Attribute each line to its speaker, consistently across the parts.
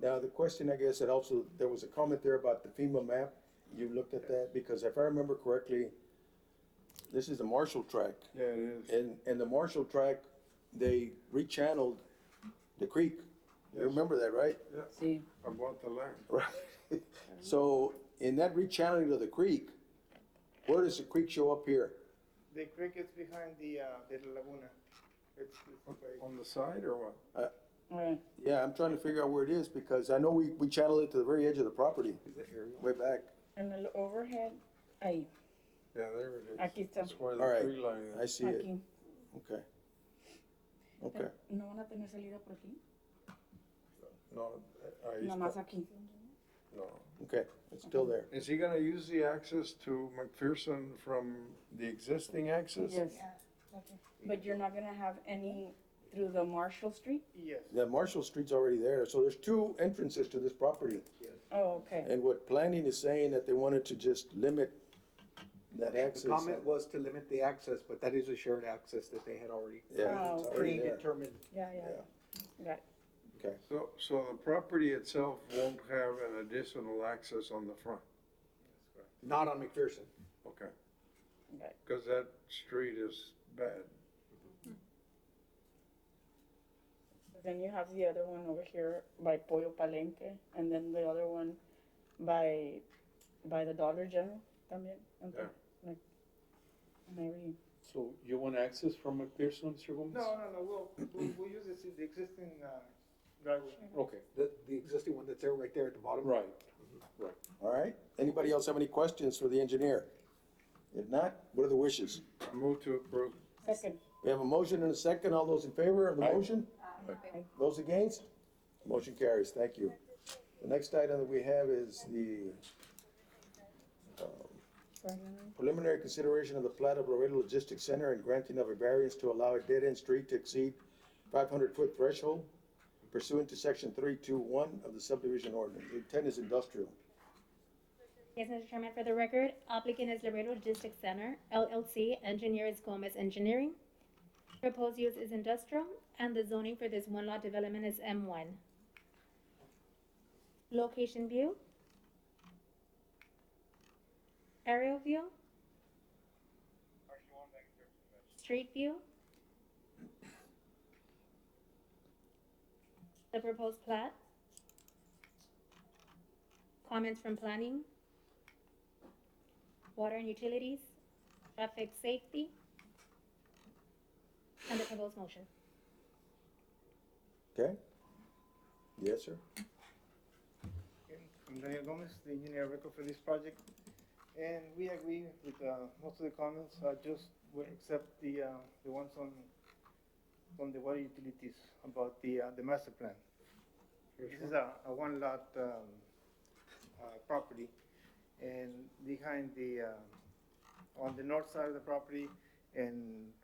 Speaker 1: Now, the question, I guess, and also, there was a comment there about the FEMA map. You looked at that, because if I remember correctly, this is the Marshall Track.
Speaker 2: Yeah, it is.
Speaker 1: And, and the Marshall Track, they rechanneled the creek. You remember that, right?
Speaker 3: See,
Speaker 2: I bought the land.
Speaker 1: Right. So in that rechanneling of the creek, where does the creek show up here?
Speaker 4: The creek is behind the, uh, the laguna. It's, it's like-
Speaker 2: On the side or what?
Speaker 3: uh,
Speaker 1: Yeah, I'm trying to figure out where it is because I know we, we channel it to the very edge of the property, way back.
Speaker 3: en el overhead, ahí,
Speaker 2: Yeah, there it is.
Speaker 3: Aquí está.
Speaker 2: That's where
Speaker 1: All
Speaker 2: the
Speaker 1: right.
Speaker 2: tree line
Speaker 1: I
Speaker 2: is.
Speaker 1: see it.
Speaker 3: aquí.
Speaker 1: Okay. Okay.
Speaker 3: ¿No van a tener salida por aquí?
Speaker 2: No, I,
Speaker 3: Nomás aquí.
Speaker 2: no.
Speaker 1: Okay, it's still there.
Speaker 2: Is he gonna use the access to McPherson from the existing access?
Speaker 3: Yes. But you're not gonna have any through the Marshall Street?
Speaker 4: yes.
Speaker 1: The Marshall Street's already there, so there's two entrances to this property.
Speaker 3: Oh, okay.
Speaker 1: And what planning is saying that they wanted to just limit that access.
Speaker 5: The comment was to limit the access, but that is a shared access that they had already
Speaker 1: Yeah, it's
Speaker 3: Oh,
Speaker 1: already there.
Speaker 5: predetermined.
Speaker 3: Yeah, yeah. Got it.
Speaker 1: Okay,
Speaker 2: So, so the property itself won't have an additional access on the front?
Speaker 5: Not on McPherson.
Speaker 2: Okay,
Speaker 3: got it.
Speaker 2: because that street is bad.
Speaker 3: Then you have the other one over here by Pollo Palenque, and then the other one by, by the Dollar General también. and
Speaker 2: Yeah.
Speaker 3: Like, maybe,
Speaker 6: So you want access from McPherson, Mr. Gomez?
Speaker 4: No, no, no, we'll, we'll, we'll use this, the existing, uh, driveway.
Speaker 6: Okay,
Speaker 5: The, the existing one that's there, right there at the bottom.
Speaker 6: right, right.
Speaker 1: all right. Anybody else have any questions for the engineer? If not, what are the wishes?
Speaker 2: I Move to approve.
Speaker 3: second.
Speaker 1: We have a motion and a second. All those in favor of the
Speaker 6: Aye.
Speaker 1: motion? Those against? Motion carries. Thank you. The next item that we have is the preliminary consideration of the plat of Laredo Logistics Center and granting of a variance to allow a dead-end street to exceed five hundred foot threshold pursuant to section three two one of the subdivision ordinance. The intent is industrial.
Speaker 7: Yes, Mr. Chairman, for the record, applicant is Laredo Logistics Center LLC, engineer is Gomez Engineering. Proposed use is industrial, and the zoning for this one lot development is M one. Location view. Aerial view. Street view. The proposed plat. Comments from planning water and utilities, traffic safety, and the proposed motion.
Speaker 1: Okay? Yes, sir?
Speaker 4: And I'm Daniel Gomez, the engineer record for this project, and we agree with uh, most of the comments, I just will accept the, uh, the ones on, on the water utilities about the, uh, the master plan. This is a, a one lot um, uh, property, and behind the, uh, on the north side of the property and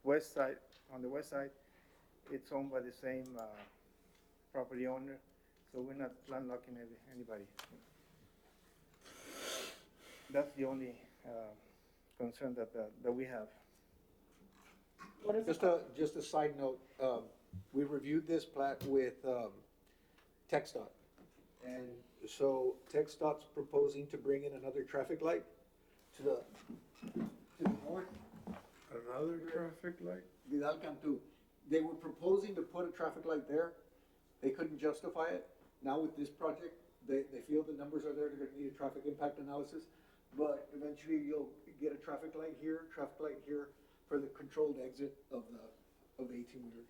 Speaker 4: west side, on the west side, it's owned by the same uh, property owner, so we're not landlocking any- anybody. That's the only uh, concern that, that that we have.
Speaker 3: What is
Speaker 5: Just
Speaker 3: it?
Speaker 5: a, just a side note, um, we reviewed this plat with, um, Tex dot. And so Tex dot's proposing to bring in another traffic light to the, to the north,
Speaker 2: Another traffic light?
Speaker 5: Vidal Cantu. They were proposing to put a traffic light there. They couldn't justify it. Now with this project, they, they feel the numbers are there, they're gonna need a traffic impact analysis. But eventually you'll get a traffic light here, traffic light here for the controlled exit of the, of the eighteen wheelers.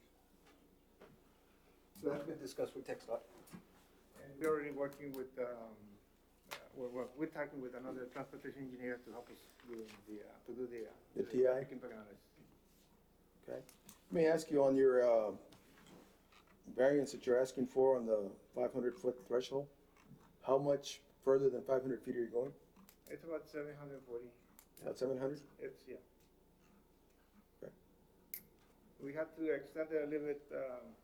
Speaker 5: So that's been discussed with Tech dot.
Speaker 4: And we're already working with, um, uh, we're, we're- we're talking with another transportation engineer to help us do the, uh, to do the. uh,
Speaker 1: The TI?
Speaker 4: Impact analysis.
Speaker 1: Okay. Let me ask you on your, uh, variance that you're asking for on the five hundred foot threshold, how much further than five hundred feet are you going?
Speaker 4: It's about seven hundred and forty,
Speaker 1: About seven hundred?
Speaker 4: it's, yeah.
Speaker 1: Okay.
Speaker 4: We have to extend it a little bit, um,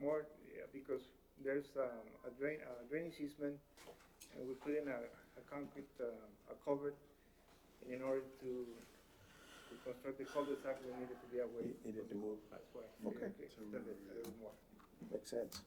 Speaker 4: more, yeah, because there's, um, a drain, a drainage easement, and we put in a, a concrete, uh, a culvert in order to, to construct the cul-de-sac, we needed to be away.
Speaker 1: You- you need to move.
Speaker 4: That's why.
Speaker 1: Okay.
Speaker 4: Extend it a little more.
Speaker 1: Makes sense.